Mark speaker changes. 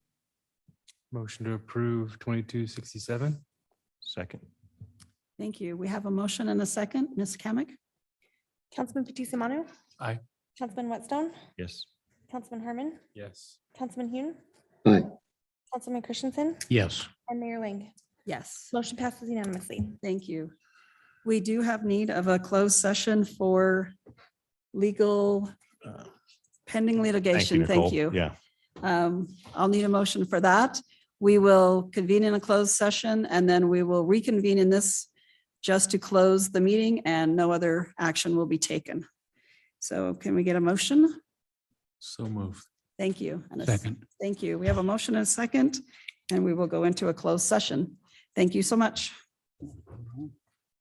Speaker 1: Motion to approve twenty-two sixty-seven?
Speaker 2: Second.
Speaker 3: Thank you. We have a motion and a second. Ms. Kamic?
Speaker 4: Councilman Fatis Manu.
Speaker 1: Aye.
Speaker 4: Councilman Whitestone,
Speaker 2: Yes.
Speaker 4: Councilman Herman,
Speaker 1: Yes.
Speaker 4: Councilman Hune.
Speaker 5: Aye.
Speaker 4: Councilman Christensen
Speaker 6: yes,
Speaker 4: and Mayor Ling.
Speaker 3: Yes.
Speaker 4: Motion passes unanimously.
Speaker 3: Thank you. We do have need of a closed session for legal uh, pending litigation. Thank you.
Speaker 6: Yeah,
Speaker 3: Um, I'll need a motion for that. We will convene in a closed session and then we will reconvene in this just to close the meeting and no other action will be taken. So can we get a motion?
Speaker 1: So moved.
Speaker 3: Thank you. And a s-
Speaker 1: Second.
Speaker 3: Thank you. We have a motion and a second, and we will go into a closed session. Thank you so much.